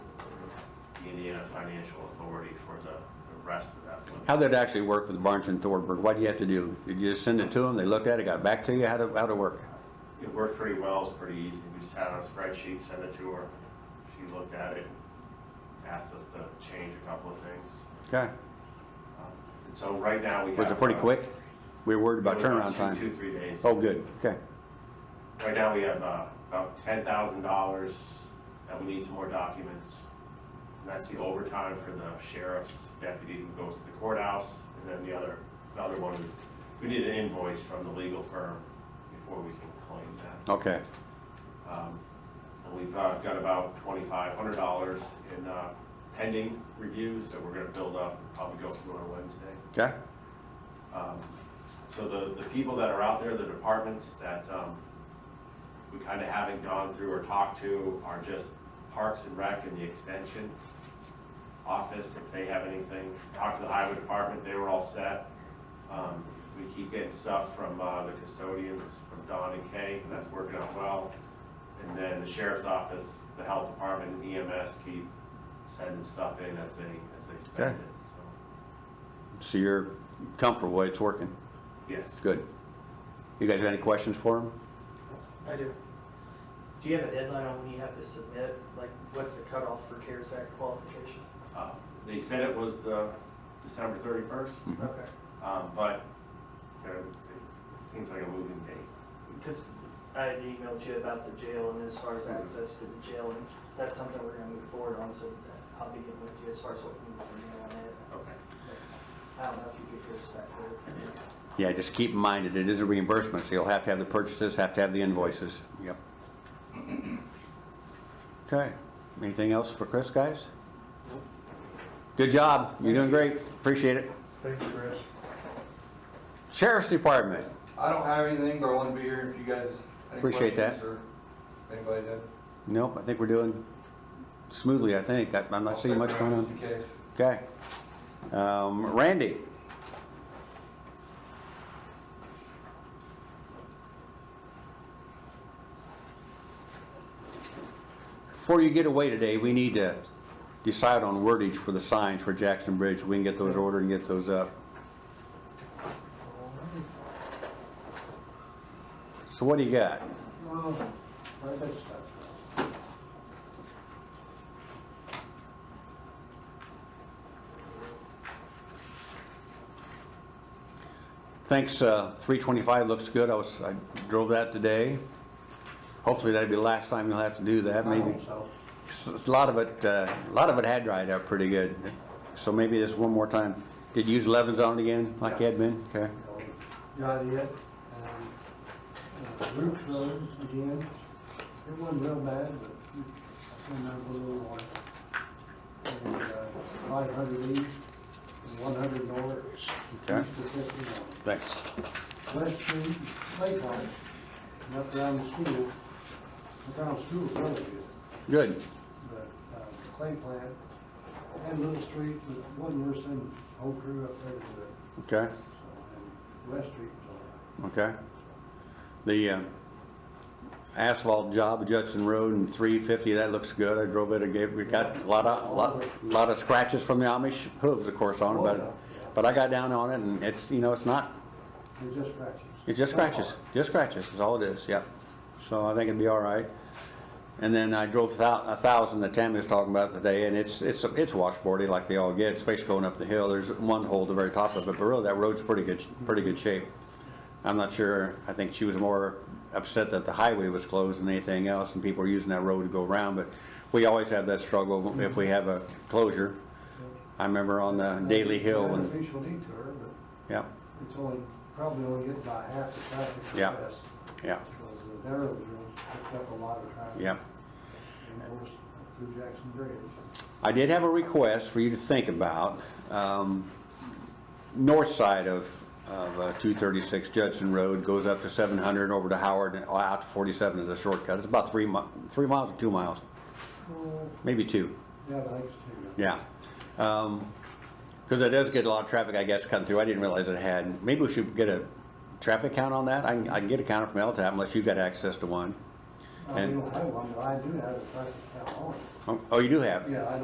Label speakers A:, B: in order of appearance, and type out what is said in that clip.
A: the financial authority for the, the rest of that limit.
B: How'd that actually work with Barnes and Thornburg? What do you have to do? Did you just send it to them, they looked at it, got back to you? How'd it, how'd it work?
A: It worked pretty well, it's pretty easy. We just had it on a spreadsheet, sent it to her. She looked at it, asked us to change a couple of things.
B: Okay.
A: And so right now we have.
B: Was it pretty
A: uh,
B: quick? We were worried about
A: it was
B: turnaround
A: two-
B: time.
A: Two, three days.
B: Oh, good, okay.
A: Right now, we have uh, about ten thousand dollars that we need some more documents. And that's the overtime for the sheriff's deputy who goes to the courthouse. And then the other, the other one is, we need an invoice from the legal firm before we can claim that.
B: Okay,
A: Um, And we've uh, got about twenty-five hundred dollars in uh, pending reviews that we're gonna build up, and probably go through on Wednesday.
B: okay,
A: Um, So the, the people that are out there, the departments that um, we kind of haven't gone through or talked to are just Parks and Rec and the Extension Office, if they have anything. Talked to the Highway Department, they were all set. Um, We keep getting stuff from uh, the custodians, from Don and Kay, and that's working out well. And then the Sheriff's Office, the Health Department, and EMS keep sending stuff in as they, as they spend
B: Okay.
A: it, so,
B: so you're comfortable, with it's working,
A: yes.
B: good. You guys have any questions for him?
C: I do. Do you have a deadline on when you have to submit? Like, what's the cutoff for CARES Act qualification?
A: Uh, They said it was the December thirty-first,
B: Mm-hmm.
A: uh,
C: Okay.
A: but there, it seems like a moving date.
C: Because I had emailed you about the jail and as far as access to the jail, and that's something we're gonna move forward on, so I'll be getting with you as far as what we need to do on that.
A: Okay.
C: I don't know if you could hear us back there.
B: Yeah, just keep in mind that it is a reimbursement, so you'll have to have the purchases, have to have the invoices, yep. Okay, anything else for Chris, guys? Good job, you're doing great, appreciate it.
D: Thank you, Chris.
B: Sheriff's Department,
E: I don't have anything, but I want to be here if you guys. any
B: Appreciate that.
E: questions or Anybody did?
B: nope, I think we're doing smoothly, I think, I- I'm not seeing much going
E: Just
B: on.
E: in case.
B: Okay. Um, Randy? Before you get away today, we need to decide on wordage for the signs for Jackson Bridge. We can get those ordered and get those up. So what do you got?
D: Well, where that stuff
B: Thanks, uh, 325 looks good. I was, I drove that today. Hopefully that'll be the last time you'll have to do that,
D: I
B: maybe.
D: hope so.
B: S- s- A lot of it, uh, a lot of it had dried up pretty good, so maybe this one more time. Did you use Levens on it again, like you had been? Okay,
D: Got it. Um, uh, Roots Road again. It wasn't real bad, but I came out a little more. And, uh, five hundred east and one hundred north.
B: Okay.
D: East of fifty north.
B: thanks.
D: West Street, Lakeville, and up around the school. I found school really good.
B: Good,
D: but uh, the clay plant and Little Street, but it wasn't worse than whole crew up there to it.
B: okay,
D: So, and West Street was all right.
B: okay. The uh, asphalt job, Judson Road and 350, that looks good. I drove it, I gave, we got a lot of, lot, lot of scratches from the Amish hooves, of course, on it, but, but I got down on it and it's, you know, it's not,
D: They're just scratches.
B: It just
D: That's
B: scratches,
D: all.
B: just scratches, is all it is, yep. So I think it'd be all right. And then I drove thou- a thousand that Tammy was talking about today, and it's, it's, it's washboardy like they all get, especially going up the hill. There's one hole at the very top of it, but really that road's pretty good, pretty good shape. I'm not sure, I think she was more upset that the highway was closed than anything else, and people are using that road to go around, but we always have that struggle if we have a closure. I remember on uh, Daly Hill,
D: It's an
B: and,
D: artificial detour, but
B: yep,
D: it's only, probably only getting about half the traffic
B: Yeah.
D: to West.
B: yep,
D: Because the narrows roads picked up a lot of traffic.
B: yep.
D: And of course, up through Jackson Bridge.
B: I did have a request for you to think about, um, north side of, of uh, 236 Judson Road goes up to 700 over to Howard and uh, out to 47 is a shortcut. It's about three mi, three miles or two miles,
D: Oh,
B: maybe two.
D: Yeah, I think it's too.
B: Yeah. Because it does get a lot of traffic, I guess, coming through. I didn't realize it had. Maybe we should get a traffic count on that. I can, I can get a counter from LTAP unless you've got access to one.
D: I
B: And-
D: don't have one, but I do have a traffic count on it.
B: Oh, you do have?
D: Yeah, I